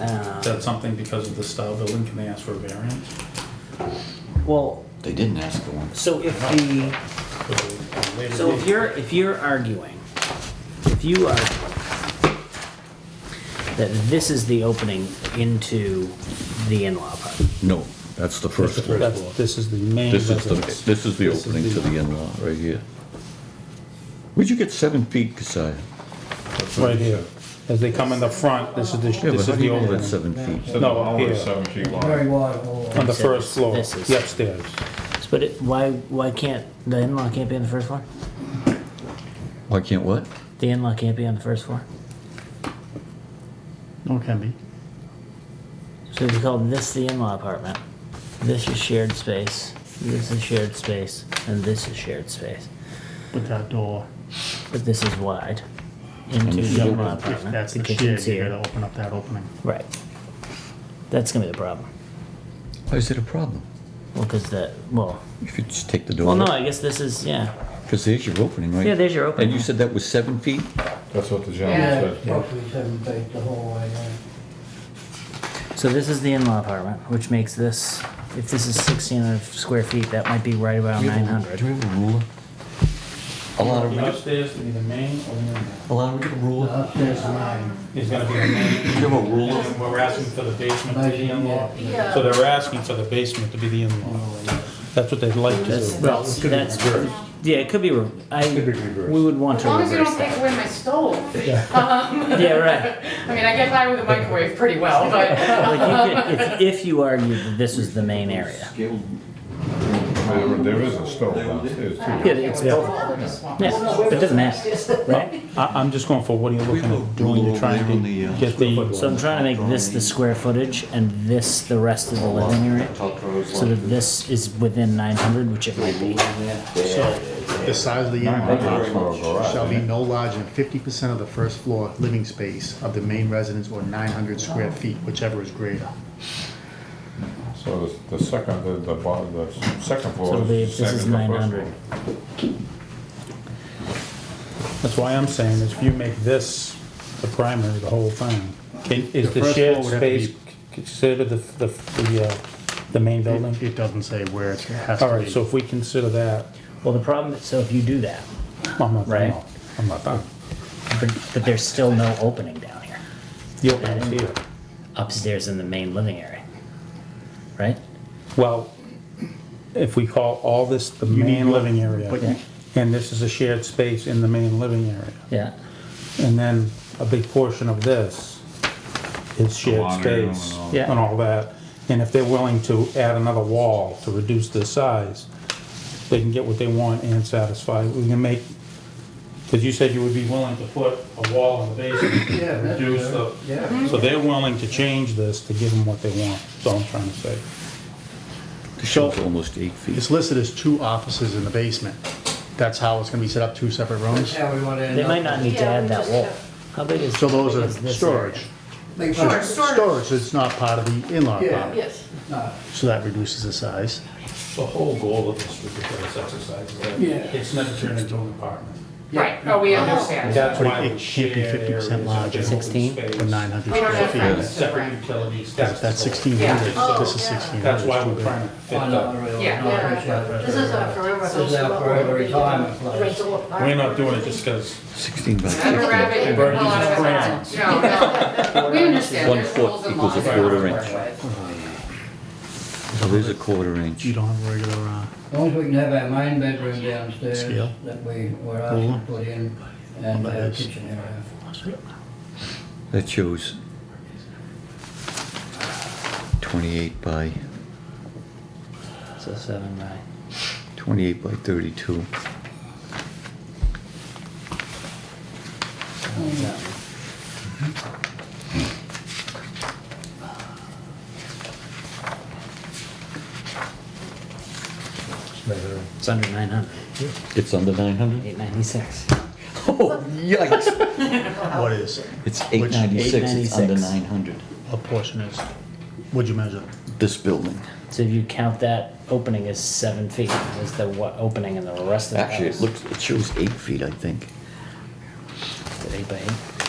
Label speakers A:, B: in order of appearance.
A: Um,
B: Is that something because of the style building, can they ask for a variance?
A: Well,
C: They didn't ask for one.
A: so if the, so if you're, if you're arguing, if you are, that this is the opening into the in-law apartment,
D: No, that's the
B: That's
D: first
B: the
D: floor.
B: first floor.
E: That's, this is the main
D: This is the,
E: residence.
D: this is the
B: This is
D: opening to
B: the-
D: the in-law, right here. Where'd you get seven feet, Kasia?
E: Right here. As they
B: Come in the front, this is the,
D: Yeah, but
B: this
D: how
B: is
D: do
B: the
D: you know that's
B: opening.
D: seven feet?
B: No, here,
F: seven feet
G: Very
F: long.
G: wide hallway.
B: on the first floor,
A: This is-
B: the upstairs.
A: but it, why, why can't, the in-law can't be on the first floor?
D: Why can't what?
A: The in-law can't be on the first floor?
H: No, it can be.
A: So if you call this the in-law apartment, this is shared space, this is shared space, and this is shared space.
H: With that door,
A: But this is wide into
D: this is
A: the
D: open.
A: in-law
H: if
A: apartment.
H: that's the
A: kitchen's
H: shed, you
A: here.
H: gotta open up that opening.
A: Right. That's gonna be the problem.
D: Why is it a problem?
A: Well, because the well,
D: If you just take the
A: well,
D: door,
A: no, I guess this is yeah.
D: because there's your opening, right?
A: Yeah, there's your
D: And
A: opening.
D: you said that was seven feet?
F: That's what the
G: Yeah,
F: gentleman
G: it's
F: said.
G: roughly seven feet the whole way down.
A: So this is the in-law apartment, which makes this. If this is 1600 square feet, that might be right about
D: Do you have a-
A: 900.
D: Do you have a ruler? Allow him
B: The
D: to,
B: upstairs to be the main or the in-law.
D: allow him to get a ruler?
G: Upstairs nine.
B: Is gonna be the main.
D: Do you have a ruler?
B: And We're asking for the basement to be in-law.
I: Yeah.
B: So they're asking for the basement to be the
A: Oh,
B: in-law. That's what they'd like to
A: That's,
B: do.
A: well, that's yeah. It could be. re- I we would want
I: As
A: to
I: long as you
A: reverse
I: don't
A: that.
I: take away my stove. Um,
A: Yeah, right.
I: I mean, I get by with a microwave pretty well, but
A: Like you could, if, if you argued that this was the main area,
F: There- There is a stove downstairs too.
A: yeah, it's both.
I: Well, they're just small.
A: Yeah, but it doesn't matter.
B: I, I'm just going for, what are you
D: We
B: looking
D: have a
B: at? When
D: ruler
B: you're
D: over there on
B: trying
D: the,
B: to
D: uh,
B: get the,
A: So I'm trying to make this the square footage and this the rest of the living area, so that this is within 900, which it might be.
E: So,
H: The size of the
F: That's
H: in-law
F: for a garage,
H: shall be
F: isn't it?
H: no larger than fifty percent of the first floor living space of the main residence or nine hundred square feet, whichever is greater.
F: So the the second, the, the bottom, the
A: So
F: second floor
A: it'll be-
F: is
A: this is
F: second to first
A: 900.
F: floor.
B: that's why I'm saying is if you make this the primary, the whole thing. can- Is
H: The
B: the
H: first
B: shared
H: floor would have to be-
B: space considered the, the, the, uh, the main building?
H: It it doesn't say where it has to be.
B: All right, so if we consider that,
A: Well, the problem, is- so if you do that,
B: I'm not,
A: Right.
B: no, I'm not done.
A: but but there's still no opening down here,
B: The opening's here.
A: upstairs in the main living area, right?
B: Well, if we call all this the main living
H: but
B: area,
H: you-
B: and this is a shared space in the main living area,
A: Yeah,
B: and then a big portion of this is shared
F: laundry room
B: space
F: and all
A: that.
B: and all that, and if they're willing to add another wall to reduce the size, they can get what they want and satisfy, we can make, because you said you would be willing to put a wall in the basement,
G: Yeah, that's
B: reduce the,
G: good. Yeah.
I: Hmm?
B: so they're willing to change this to give them what they want, that's all I'm trying to say.
D: The shelf almost eight feet.
H: It's listed as two offices in the basement. That's how it's gonna be set up, two separate rooms.
G: That's how we want to end
A: they
G: up.
A: might not need to
I: Yeah,
A: add
I: we
A: that
I: just
A: wall.
I: have-
A: How big is?
H: So those
A: how big
H: are
A: is this
H: storage.
A: area?
G: They
I: Sure,
G: should-
I: storage.
H: Storage is not part of the in-law
G: Yeah.
H: apartment,
I: Yes.
G: no.
H: so that reduces the size.
B: The whole goal of this ridiculous exercise is that
G: Yeah.
B: it's never turned into an apartment.
I: Right, oh, we understand.
B: That's
H: But
B: why
H: it
B: we
H: should be
B: share
H: 50%
B: areas,
H: larger.
B: open
A: 16?
B: space,
H: for 900
A: Oh,
I: We don't
H: square
I: have
H: feet.
I: friends to
B: Separate
I: rent.
B: utilities, that's.
H: That's
B: the goal.
H: sixteen hundred,
I: Yeah.
H: this is
I: Oh, yeah.
H: sixteen hundred.
B: That's why we're trying to fit
G: Oh, no,
B: up.
G: really,
I: Yeah.
G: no, I appreciate that.
I: This is our forever
G: This is our forever retirement place.
B: We're not doing it just because
D: Sixteen by
I: I'm a
D: fifteen.
I: rabbit, you put a lot of us on. No, no, we understand,
D: One
I: there's
D: foot
I: rules and
D: equals a
I: laws.
D: quarter inch. So there's a quarter inch.
H: You don't have a regular, uh,
G: As long as we can have our main bedroom downstairs
H: Scale.
G: that we were asked to put in and
H: Well, that
G: our
H: is-
G: kitchen area.
D: That shows twenty-eight by,
A: So seven by.
D: twenty-eight by thirty-two.
A: It's under 900.
D: It's under nine hundred?
A: 896.
D: Oh, yikes!
H: what is,
D: It's eight ninety-six, it's under
A: 896.
D: nine hundred.
H: a portion is, what'd you measure?
D: This building.
A: So if you count that opening as seven feet, is the what opening in the rest of the house?
D: Actually, it looks, it shows eight feet, I think.
A: Is it Eight by eight.